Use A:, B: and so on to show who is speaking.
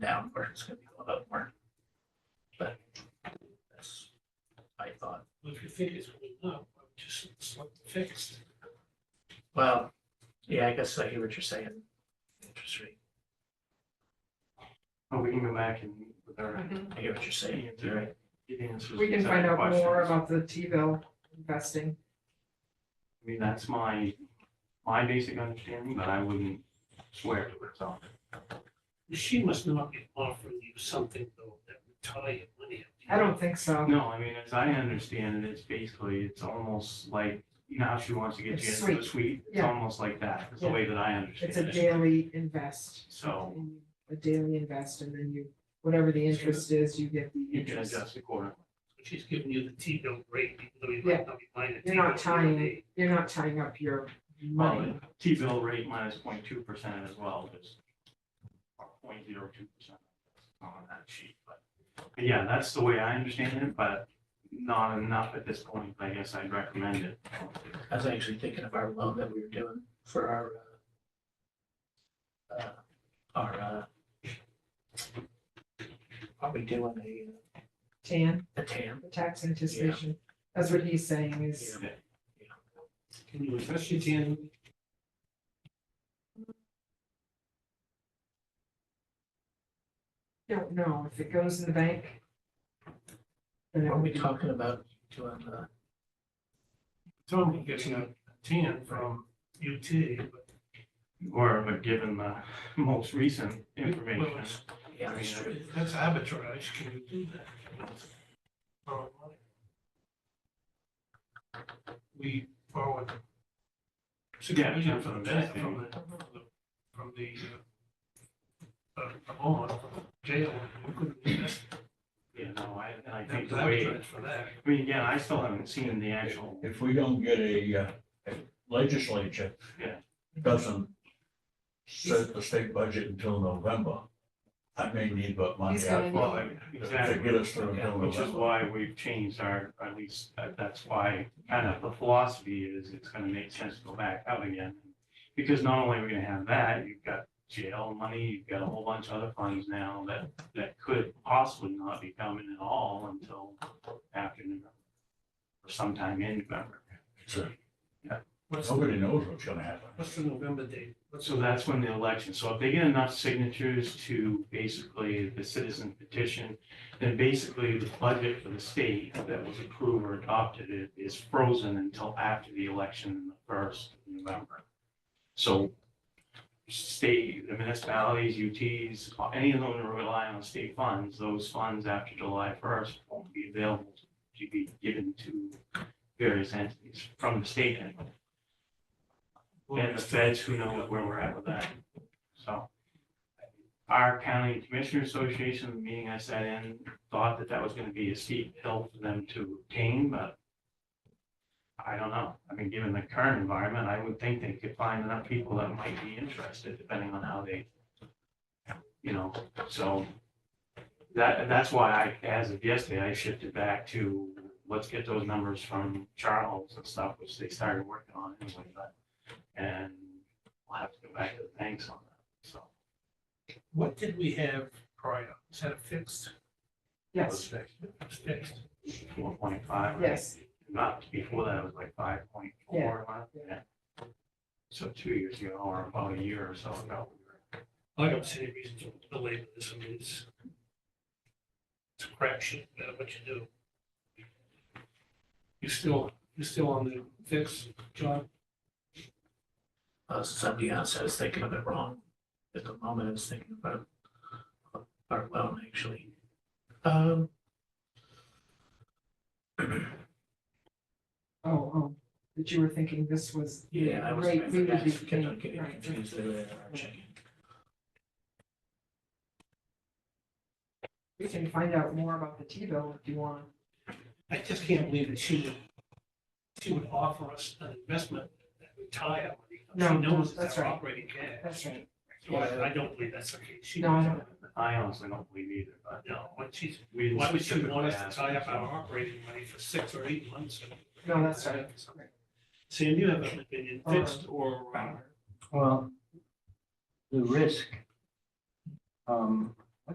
A: down where it's gonna be going up more. But that's, I thought,
B: Well, If you think it's going up, I'm just select fixed.
A: well, yeah, I guess I hear what you're saying. Interest rate,
C: Well, Oh, we can go back and meet with our,
B: Mm-hmm.
A: I hear what you're saying, you're right.
C: get answers.
D: We can
C: to
D: find
C: our
D: out more
C: questions.
D: about the T-bill investing.
C: I mean, that's my, my basic understanding, but I wouldn't swear to it, so.
B: She must not be offering you something though that would tie your money up.
D: I don't think so.
C: No, I mean, as I understand it, it's basically, it's almost like, you know how she wants to get you
D: It's
C: into the suite? It's
D: Yeah.
C: almost like that, is the
D: Yeah.
C: way that I
D: It's a
C: understand it.
D: daily invest,
C: So
D: a daily invest, and then you, whatever the interest is, you get the
C: you can
D: interest.
C: adjust accordingly.
B: She's giving you the T-bill rate, even though you
D: Yeah.
B: might not be buying a
D: You're not
B: T-bill every
D: tying
B: day.
D: You're not tying up your money.
C: T-bill rate minus 0.2 percent as well, is or 0.02 percent on that sheet, but. but Yeah, that's the way I understand it, but not enough at this point, I guess I'd recommend it.
A: I was actually thinking of our loan that we were doing for our, uh, uh, our, uh, are we doing a, uh,
D: Tan,
A: a TAM?
D: the tax anticipation, that's what he's saying is,
A: Yeah.
B: Can you refresh your tan?
D: don't know, if it goes in the bank. Then it
B: Oh,
A: Are
D: will
A: we
D: be,
A: talking about doing, uh,
B: Tom can get a tan from UT, but
C: Or but given the most recent
B: well,
C: information.
B: it's-
A: yeah, that's true.
B: that's arbitrage, can you do that? Borrow money. We borrowed six
C: Yeah,
B: million
C: that's what
B: from
C: I'm
B: the,
C: saying.
B: from the, from the, uh, uh, a bond, jail, we couldn't invest
C: You know, I, and I
B: that
C: think the way,
B: arbitrage for that.
C: I mean, again, I still haven't seen the actual,
E: If we don't get a uh, legislature.
C: Yeah.
E: Doesn't set the state budget until November, I may need but money
D: He's
E: out
D: gonna-
C: well,
E: to
C: exactly,
E: get us through until
C: which is
E: November.
C: why we've changed our, at least, uh, that's why kind of the philosophy is it's gonna make sense to go back out again. Because not only are we gonna have that, you've got jail money, you've got a whole bunch of other funds now that, that could possibly not be coming at all until after November. Or sometime in November.
E: So
B: What's, the-
E: Nobody knows what's gonna happen.
B: what's the November date? What's
C: So that's when the election, so if they get enough signatures to basically the citizen petition, then basically the budget for the state that was approved or adopted i- is frozen until after the election in the first of November. So state, the municipalities, UTs, any of them that rely on state funds, those funds after July first won't be available to be given to various entities from the state anyway. And the feds, who knows where we're at with that, so. Our county commissioner association, the meeting I sat in, thought that that was gonna be a steep hill for them to obtain, but. I don't know, I mean, given the current environment, I would think they could find enough people that might be interested, depending on how they. You know, so. That, that's why I, as of yesterday, I shifted back to, let's get those numbers from Charles and stuff, which they started working on anyway, but and we'll have to go back to the banks on that, so.
B: What did we have prior? Is that a fixed?
D: yes,
B: It's fixed.
C: Four point five.
D: yes,
C: Not, before that, it was like five point four,
D: Yeah.
C: yeah. So two years ago, or about a year or so ago. we were-
B: I don't see any reason to delay this. I mean, it's it's a crapshoot, no matter what you do. You still, you still on the fix, John?
A: Uh, somebody else, I was thinking of it wrong at the moment, I was thinking about our loan, actually. Um,
D: oh, oh, that you were thinking this was. the
A: yeah, I was, I
D: rate we would
A: forgot,
D: be
A: kept on
D: paying.
A: getting
D: Right, right.
A: confused there, our checking.
D: We can find out more about the T-bill if you want.
B: I just can't believe that she would, she would offer us an investment that would tie up.
D: No,
B: She knows
D: that's
B: it's our
D: right.
B: operating cash.
D: That's right.
B: So I, I don't believe that's the case. She
D: No, I
B: would-
D: don't.
C: I honestly don't believe either, but.
B: No, what she's,
C: we
B: why would she
C: specifically
B: want us
C: asked-
B: to tie up our operating money for six or eight months?
D: No, that's right. Um,
B: Sam, you have an opinion, fixed or? uh,
F: Well, the risk um,